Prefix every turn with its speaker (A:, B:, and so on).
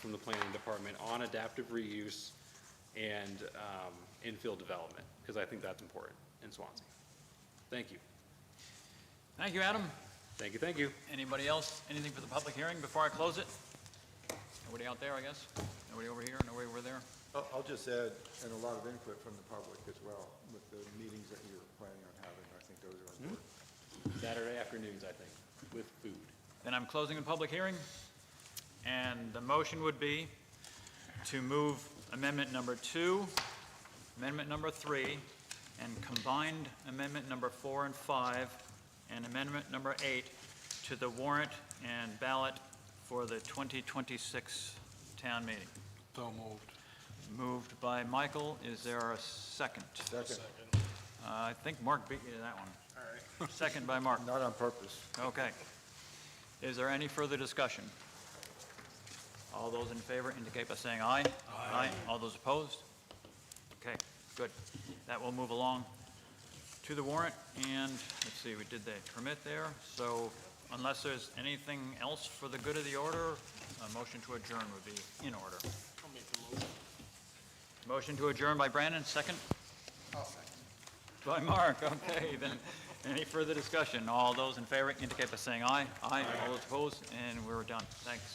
A: from the planning department on adaptive reuse and um, infill development, because I think that's important in Swansea. Thank you.
B: Thank you, Adam.
A: Thank you, thank you.
B: Anybody else, anything for the public hearing before I close it? Nobody out there, I guess? Nobody over here, nobody over there?
C: I'll I'll just add, and a lot of input from the public as well, with the meetings that you're planning on having, I think those are important.
A: Saturday afternoons, I think, with food.
B: Then I'm closing the public hearing, and the motion would be to move amendment number two, amendment number three, and combined amendment number four and five, and amendment number eight to the warrant and ballot for the 2026 town meeting.
D: So moved.
B: Moved by Michael, is there a second?
C: Second,
B: Uh, I think Mark beat you to that one. All right. Second by Mark.
C: not on purpose.
B: Okay. Is there any further discussion? All those in favor indicate by saying aye. Aye. All those opposed? Okay, good. That will move along to the warrant, and let's see, we did the permit there, so unless there's anything else for the good of the order, a motion to adjourn would be in order. motion. to adjourn by Brandon, 2nd by Mark, okay, then, any further discussion? All those in favor indicate by saying aye. Aye, all those opposed, and we're done. Thanks.